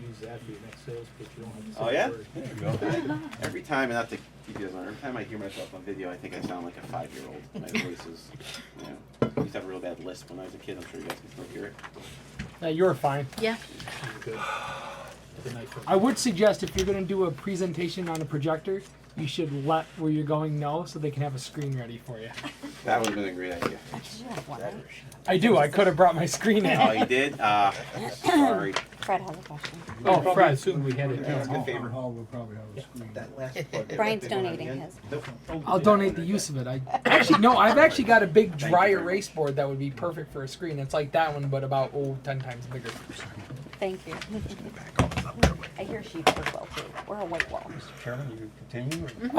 use that for your next sales pitch, you don't have to say Oh, yeah? a word. There you go. Every time, and not to keep you guys on, every time I hear myself on video, I think I sound like a five-year-old. My voice is, you know, I used to have a real bad lisp when I was a kid. I'm sure you guys can still hear it. No, you're fine. Yeah. You're good. Have a nice one. I would suggest if you're going to do a presentation on a projector, you should let where you're going know so they can have a screen ready for you. That would have been a great idea. Actually, you have one. right? I do. I could have brought my screen Oh, in. you did? Ah, sorry. Fred has a question. We'll Oh, probably Fred. Assume we had it. Yeah. down. good favorite. Hall will probably have a screen. Brian's donating his. I'll donate the use of it. I actually no. I've actually got a big dry very much. erase board that would be perfect for a screen. It's like that one, but about oh, 10 times bigger. Thank you. I hear she's work well too, or a white wall. Mr. Chairman, you continue? or- Mm-hmm. Mm-hmm.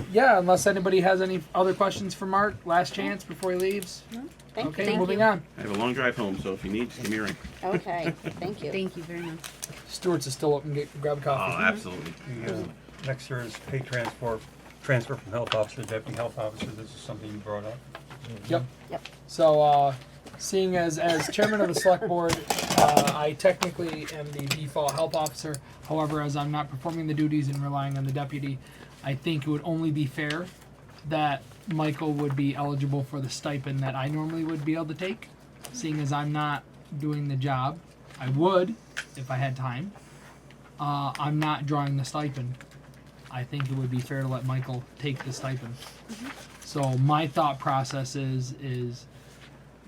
Uh, yeah. Unless anybody has any other questions for Mark, last chance before he leaves. Mm-hmm. Thank Okay, you. moving on. I have a long drive home, so if you need, just give me a ring. Okay, thank you. Thank you very much. Stewart's is still up and get, grab a Oh, coffee. absolutely. Yeah. Next here is pay transfer, transfer from health officer to deputy health officer. This is something you brought up. Yep. Yep. So, uh, seeing as, as chairman of the select board, uh, I technically am the default help officer. However, as I'm not performing the duties and relying on the deputy, I think it would only be fair that Michael would be eligible for the stipend that I normally would be able to take, seeing as I'm not doing the job. I would if I had time. Uh, I'm not drawing the stipend. I think it would be fair to let Michael take the stipend. So my thought process is is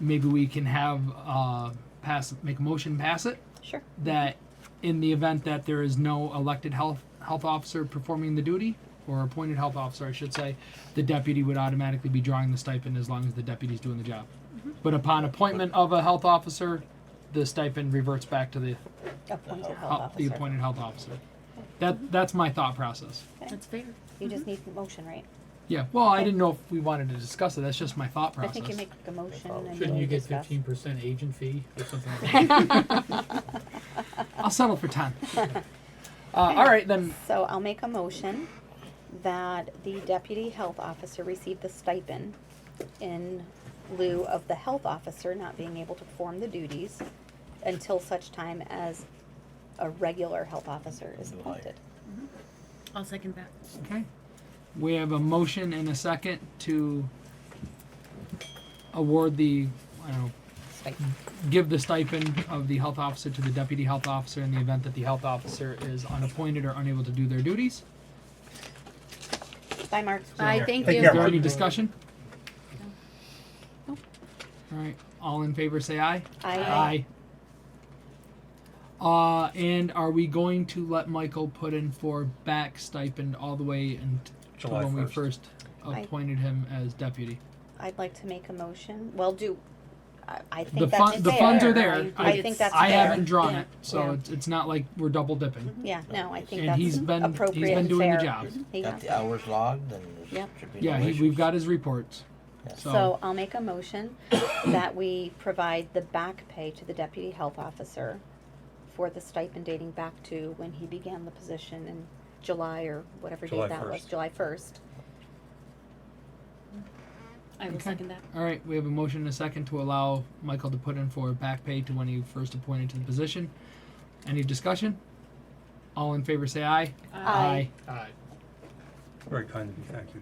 maybe we can have uh, pass make a motion pass it Sure. that in the event that there is no elected health health officer performing the duty or appointed health officer I should say the deputy would automatically be drawing the stipend as long as the deputy's doing the job. Mm-hmm. But upon appointment of a health officer, the stipend reverts back to the, Appointed health hel- the officer. appointed health officer. That that's my thought process. That's fair. You just need the motion, right? Yeah. Well, I didn't know if we wanted to discuss it. That's just my thought I process. think you make a motion and then Shouldn't you we get discuss. fifteen percent agent fee or something like that? I'll settle for ten. Uh, all right, then. So I'll make a motion that the deputy health officer receive the stipend in lieu of the health officer not being able to perform the duties until such time as a regular health officer is appointed. I'll second that. Okay. We have a motion and a second to award the, I don't know, Stipend. give the stipend of the health officer to the deputy health officer in the event that the health officer is unappointed or unable to do their duties. Bye, Mark. Bye, thank Take you. Is care. there any discussion? All right, all in favor, say aye. Aye. Uh, and are we going to let Michael put in for back stipend all the way until July when we 1st. first I- appointed him as deputy? I'd like to make a motion. Well, do, I, I The think that's fun, the funds are fair. there. I I I, think that's I fair. haven't drawn Yeah. it, so Yeah. it's, it's not like we're double dipping. Yeah, no, I think And he's that's been, he's appropriate been and doing the fair. job. He Got got- the hours logged and there Yep. should be no Yeah, he, issues. we've got his reports. So, So I'll make a motion that we provide the back pay to the deputy health officer for the stipend dating back to when he began the position in July or whatever July date that was, 1st. July first. I will Okay. second that. all right, we have a motion and a second to allow Michael to put in for back pay to when he first appointed to the position. Any discussion? All in favor, say aye. Aye. Aye. Very kind of you, thank you.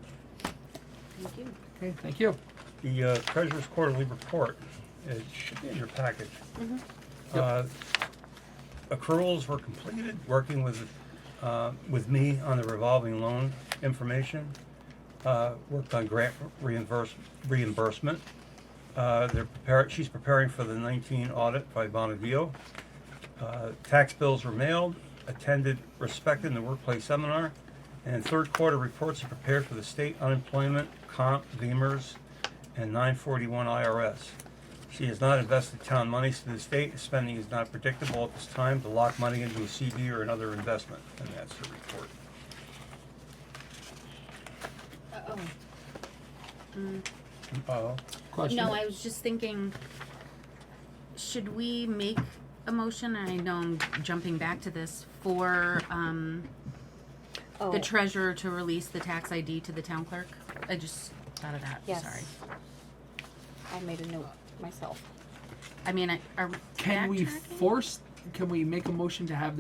Thank you. Okay, thank you. The uh, treasurer's quarterly report, it should be in your package. Yep. Uh, Accruals were completed, working with, uh, with me on the revolving loan information. Uh, Worked on grant reimburse, reimbursement. Uh, They're prepared, she's preparing for the nineteen audit by Bonneville. Uh, Tax bills were mailed, attended Respect in the Workplace seminar, and third quarter reports are prepared for the state unemployment, comp, beamers, and 941 IRS. She has not invested town monies to the state. Spending is not predictable at this time to lock money into a CD or another investment, and that's her report. Oh, Oh, Question? no, I was just thinking, should we make a motion? I know I'm jumping back to this for, um, Oh, the treasurer to release the tax ID to the town clerk. I just thought of that, yes. sorry. I made a note myself. I mean, I, are we Can we backtracking? force, can we make a motion to have